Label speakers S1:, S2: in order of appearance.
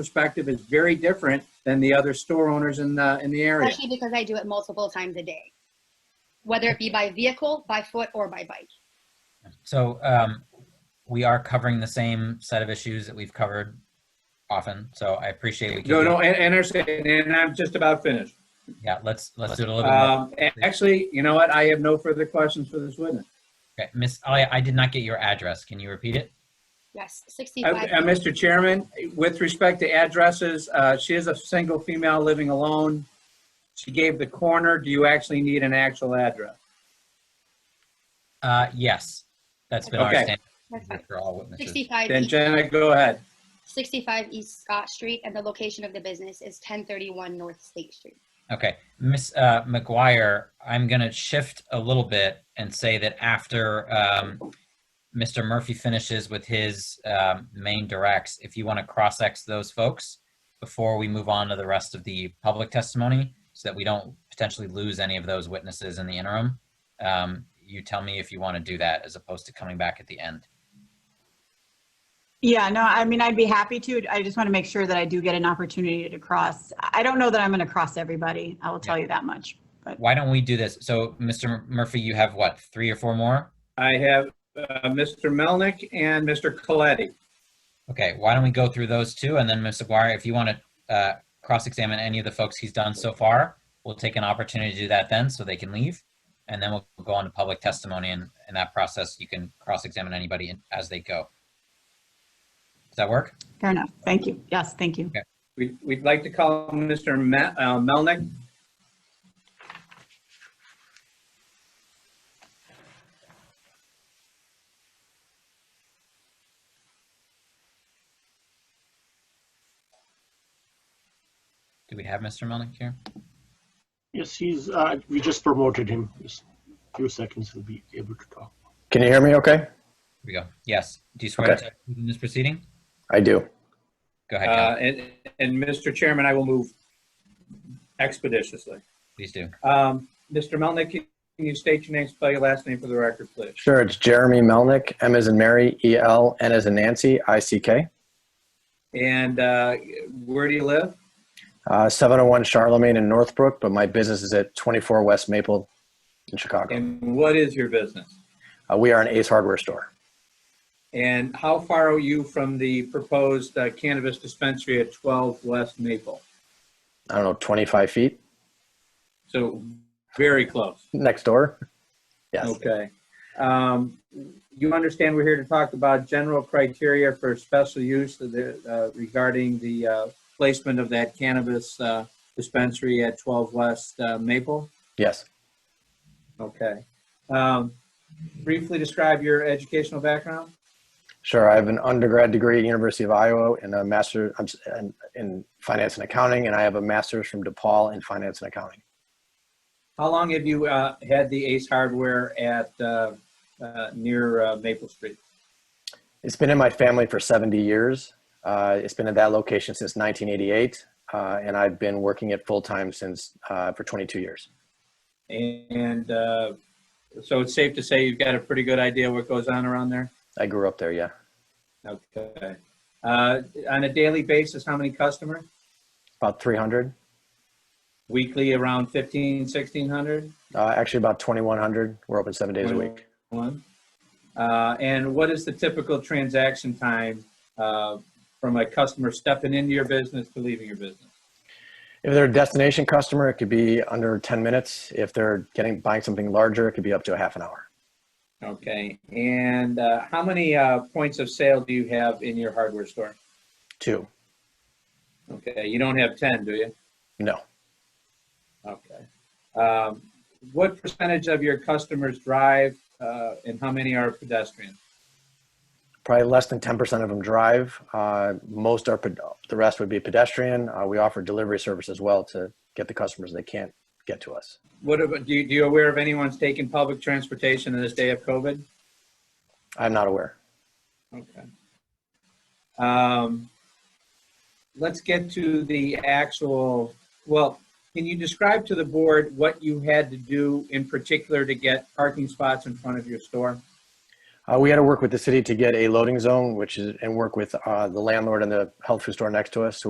S1: perspective is very different than the other store owners in the, in the area.
S2: especially because I do it multiple times a day, whether it be by vehicle, by foot, or by bike.
S3: So um, we are covering the same set of issues that we've covered often. So I appreciate we can.
S1: No,
S3: do-
S1: no, and, and I'm saying- and I'm just about finished.
S3: Yeah, let's let's do it a little bit more.
S1: Um, and actually, you know what? I have no further questions for this witness.
S3: Okay, Miss, I, I did not get your address. Can you repeat it?
S2: Yes,
S1: Uh,
S2: 65.
S1: uh, Mr. Chairman, with respect to addresses, uh, she is a single female living alone. She gave the corner. Do you actually need an actual address?
S3: Uh, yes, that's been our
S1: Okay.
S3: standard
S2: That's fine.
S3: for all witnesses.
S2: 65
S1: Then
S2: East,
S1: Jenna, go ahead.
S2: 65 East Scott Street, and the location of the business is 1031 North State Street.
S3: Okay, Miss uh, McGuire, I'm gonna shift a little bit and say that after um, Mr. Murphy finishes with his um, main directs, if you want to cross-ex those folks before we move on to the rest of the public testimony, so that we don't potentially lose any of those witnesses in the interim, um, you tell me if you want to do that as opposed to coming back at the end.
S4: Yeah, no, I mean, I'd be happy to. I just want to make sure that I do get an opportunity to cross. I don't know that I'm going to cross everybody. I will tell you that much.
S3: Why don't we do this? So, Mr. Murphy, you have what, three or four more?
S1: I have, uh, Mr. Melnick and Mr. Coletti.
S3: Okay, why don't we go through those two, and then Ms. Aguirre, if you want to uh, cross-examine any of the folks he's done so far, we'll take an opportunity to do that then, so they can leave, and then we'll go on to public testimony, and in that process, you can cross-examine anybody in- as they go. Does that work?
S4: Fair enough. Thank you. Yes, thank you.
S1: We- We'd like to call Mr. Ma- uh, Melnick.
S3: Do we have Mr. Melnick here?
S5: Yes, he's, uh, we just promoted him. Just a few seconds, he'll be able to talk.
S6: Can you hear me okay?
S3: Here we go. Yes. Do you swear
S6: Okay.
S3: to in this proceeding?
S6: I do.
S3: Go ahead, Kelly.
S1: Uh, And, and Mr. Chairman, I will move expeditiously.
S3: Please do.
S1: Um, Mr. Melnick, can you state your name, spell your last name for the record, please?
S6: Sure, it's Jeremy Melnick, M as in Mary, E L, N as in Nancy, I C K.
S1: And uh, where do you live?
S6: Uh, 701 Charlemagne in Northbrook, but my business is at 24 West Maple in Chicago.
S1: And what is your business?
S6: Uh, we are an Ace Hardware store.
S1: And how far are you from the proposed uh, cannabis dispensary at 12 West Maple?
S6: I don't know, 25 feet
S1: So very close.
S6: next door. Yes.
S1: Okay. Um, You understand we're here to talk about general criteria for special use of the, uh, regarding the uh, placement of that cannabis uh, dispensary at 12 West uh, Maple?
S6: Yes.
S1: Okay. Um, Briefly describe your educational background?
S6: Sure. I have an undergrad degree at University of Iowa and a master I'm s- in, in finance and accounting, and I have a master's from DePaul in finance and accounting.
S1: How long have you uh, had the Ace Hardware at, uh, uh, near uh, Maple Street?
S6: It's been in my family for 70 years. Uh, it's been at that location since 1988, uh, and I've been working it full time since uh, for 22 years.
S1: And uh, so it's safe to say you've got a pretty good idea what goes on around there?
S6: I grew up there, yeah.
S1: Okay. Uh, On a daily basis, how many customers?
S6: About 300,
S1: Weekly, around 15, 1600?
S6: uh, actually about 2,100. We're open seven days a week.
S1: One. Uh, And what is the typical transaction time uh, from a customer stepping into your business to leaving your business?
S6: If they're a destination customer, it could be under 10 minutes. If they're getting buying something larger, it could be up to a half an hour.
S1: Okay, and uh, how many uh, points of sale do you have in your hardware store?
S6: Two,
S1: Okay, you don't have 10, do you?
S6: no.
S1: Okay. Um, What percentage of your customers drive uh, and how many are pedestrians?
S6: Probably less than 10% of them drive. Uh, most are, ped- the rest would be pedestrian. Uh, we offer delivery service as well to get the customers they can't get to us.
S1: What, about- do you, do you aware of anyone's taking public transportation in this day of COVID?
S6: I'm not aware.
S1: Okay. Um, Let's get to the actual, well, can you describe to the board what you had to do in particular to get parking spots in front of your store?
S6: Uh, Uh, we had to work with the city to get a loading zone, which is, and work with uh, the landlord and the health food store next to us. So we